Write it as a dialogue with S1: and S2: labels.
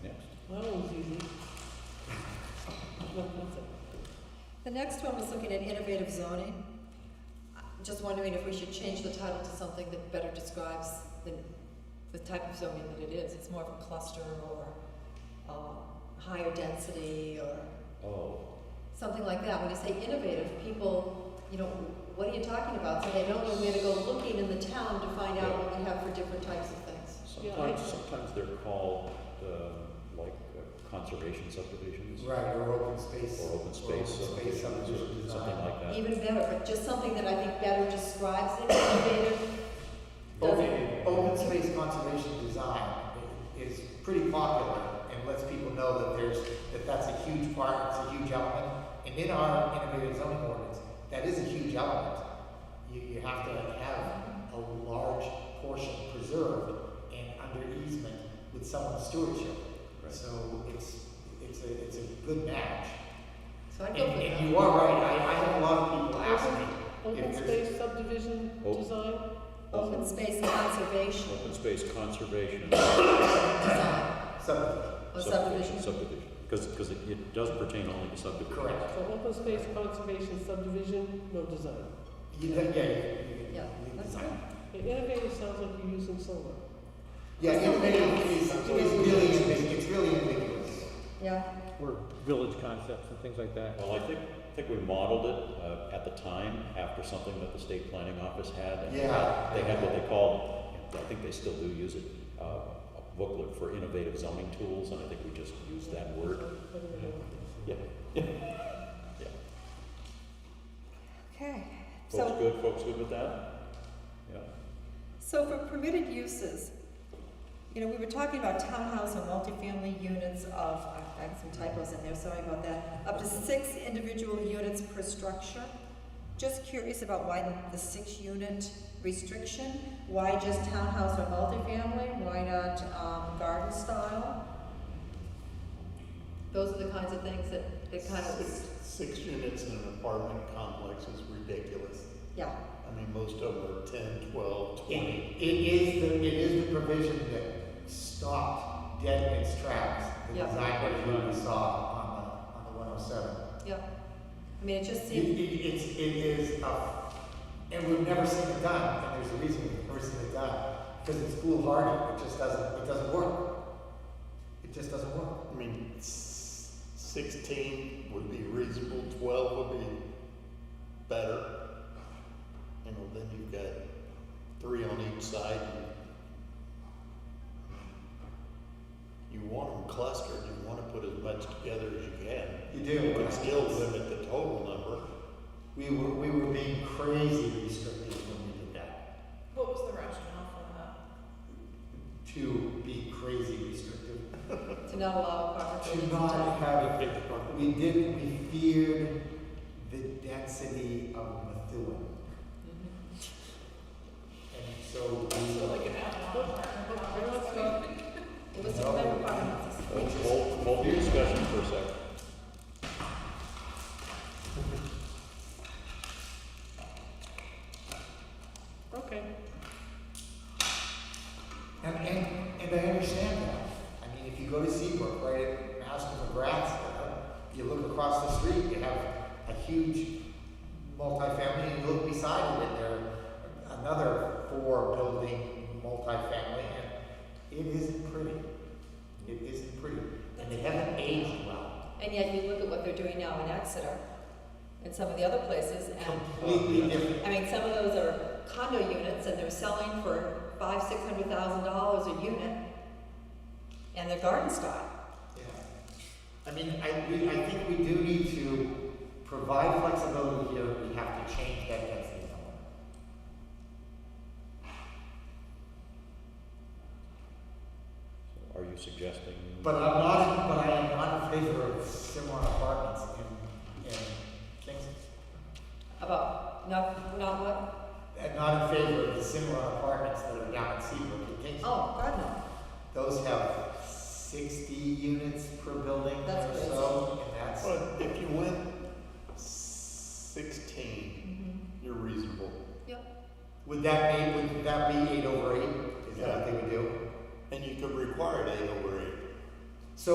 S1: The next one was looking at innovative zoning. I'm Just wondering if we should change the title to something that better describes the, the type of zoning that it is. It's more of a cluster or, um, higher density or
S2: Oh,
S1: something like that. When you say innovative, people, you know, what are you talking about? So they don't know where to go looking in the town to find out what we have for different types of things.
S3: Yeah,
S2: sometimes,
S3: I-
S2: sometimes they're called, um, like uh, conservation subdivisions.
S4: Right, or open space.
S2: Or open space
S4: space uh-huh.
S2: subdivisions, or
S4: subdivision
S2: something
S4: design.
S2: like that.
S1: Even better, but just something that I think better describes it, innovative.
S4: Open, open space conservation design is pretty popular and lets people know that there's, that that's a huge part, it's a huge element. And in our innovative zoning ordinance, that is a huge element. You, you have to have a large portion preserved and under easement with someone's stewardship.
S2: Right.
S4: So it's, it's a, it's a good match.
S1: So I'd
S4: And,
S1: go for
S4: and
S1: that.
S4: you are right, I, I have a lot of people ask me
S3: Open
S4: if there's
S3: space subdivision
S2: Oh.
S3: design?
S1: Open space conservation
S2: Open space conservation
S1: design
S4: something,
S1: or
S2: subdivision,
S1: subdivision.
S2: subdivision, because, because it, it does pertain only to subdivision.
S4: correct.
S3: So open space conservation subdivision, no design.
S4: You, yeah, yeah, you-
S1: Yeah,
S4: you
S1: that's
S4: design.
S3: Okay, Innovative sounds like you're using solar.
S4: Yeah,
S1: That's something
S4: innovative
S1: else.
S4: is, is really, ambig- it's really ambiguous.
S1: Yeah,
S5: or village concepts and things like that.
S2: Well, I think, I think we modeled it, uh, at the time after something that the state planning office had. and they had-
S4: Yeah.
S2: They had what they called, and I think they still do use it, uh, a booklet for innovative zoning tools, and I think we just used that word. Yeah,
S1: okay.
S2: folks
S1: So,
S2: good, folks good with that? Yeah,
S1: so for permitted uses, you know, we were talking about townhouse or multifamily units of, I have some typos in there, sorry about that, up to six individual units per structure. Just curious about why the- the six-unit restriction? Why just townhouse or multifamily? Why not, um, garden style? Those are the kinds of things that, that kind
S6: Six,
S1: of,
S6: six units in an apartment complex is ridiculous.
S1: yeah.
S6: I mean, most of them are ten, twelve,
S4: It,
S6: twenty.
S4: it is the, it is the provision that stopped dead in its tracks, the
S1: Yeah.
S4: design review we saw on the, on the one oh seven.
S1: Yeah, I mean, it just
S4: It,
S1: seems,
S4: it, it's, it is, uh, and we've never seen it done, and there's a reason we've never seen it done, because it's foolhardy, it just doesn't, it doesn't work. It just doesn't work.
S6: I mean, s- sixteen would be reasonable, twelve would be better. You know, then you've got three on each side. and You want them clustered, you wanna put as much together as you can.
S4: You do.
S6: You can still limit the total number.
S4: We were, we were being crazy restrictive when we did that.
S7: What was the rationale for that?
S4: To be crazy restrictive.
S1: to not allow apartment
S4: To
S1: buildings
S4: not
S1: to-
S4: have, we did, we feared the density of Methuen.
S1: Mhm.
S4: And
S7: So
S4: so we,
S7: like an outlaw apartment block or
S3: Well,
S7: something?
S3: uh,
S1: It was to prevent apartments.
S2: Folks, hold, hold the discussion for a sec.
S3: Oh, Okay.
S4: and, and, and I understand that. I mean, if you go to Seabrook, right at Master McGrath's, you look across the street, you have a huge multifamily, and you look beside it, and there are another four building multifamily, and it isn't pretty. It isn't pretty. And they haven't aged well.
S1: And yet you look at what they're doing now in Exeter and some of the other places and,
S4: completely different.
S1: I mean, some of those are condo units and they're selling for five, six hundred thousand dollars a unit. And they're garden style.
S4: Yeah. I mean, I, we, I think we do need to provide flexibility here, we have to change that density somewhere.
S2: Are you suggesting?
S4: But I'm not, but I am not in favor of similar apartments in, in Kingston.
S1: About, not, not what,
S4: I'm not in favor of the similar apartments that are down in Seabrook in Kingston.
S1: oh, God, no.
S4: Those have sixty units per building
S1: That's
S4: or
S1: what it is.
S4: so, and that's,
S6: But if you went sixteen,
S1: Mhm.
S6: you're reasonable.
S4: would that be, would that be eight over eight? Is that what they would do?
S6: And you could require it eight over eight.